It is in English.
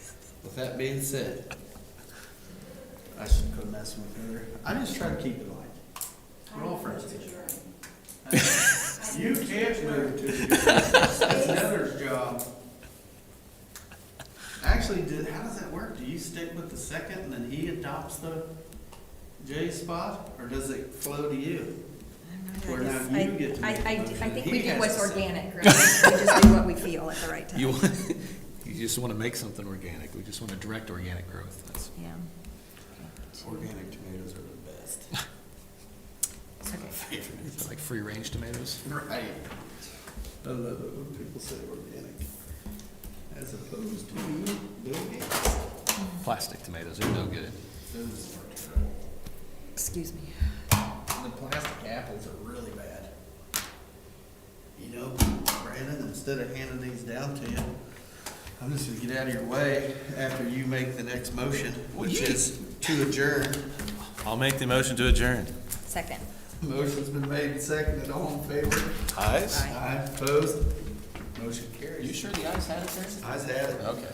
With that being said, I should quit messing with her. I just try to keep it light. We're all friends. You can't move to the, that's Heather's job. Actually, did, how does that work? Do you stick with the second and then he adopts the J spot? Or does it flow to you? I Or now guess you I- get to I, make I, the do- I motion. think He we do has what's to say. organic, really. We just do what we feel at the right time. You, you just want to make something organic. We just want to direct organic growth. That's, Yeah. Organic tomatoes are the best. Okay. is that like free range tomatoes? Right. I love it when people say organic. As opposed to Bill Gates. Plastic tomatoes are no good. Those are terrible. Excuse me. The plastic apples are really bad. You know, Brandon, instead of handing these down to you, I'm just gonna get out of your way after you make the next motion, which is to adjourn. I'll make the motion to adjourn. Second. Motion's been made and seconded, all in favor? Ayes? Aye. Aye, opposed? Motion carries. the eyes had it there? Ayes have it. Okay.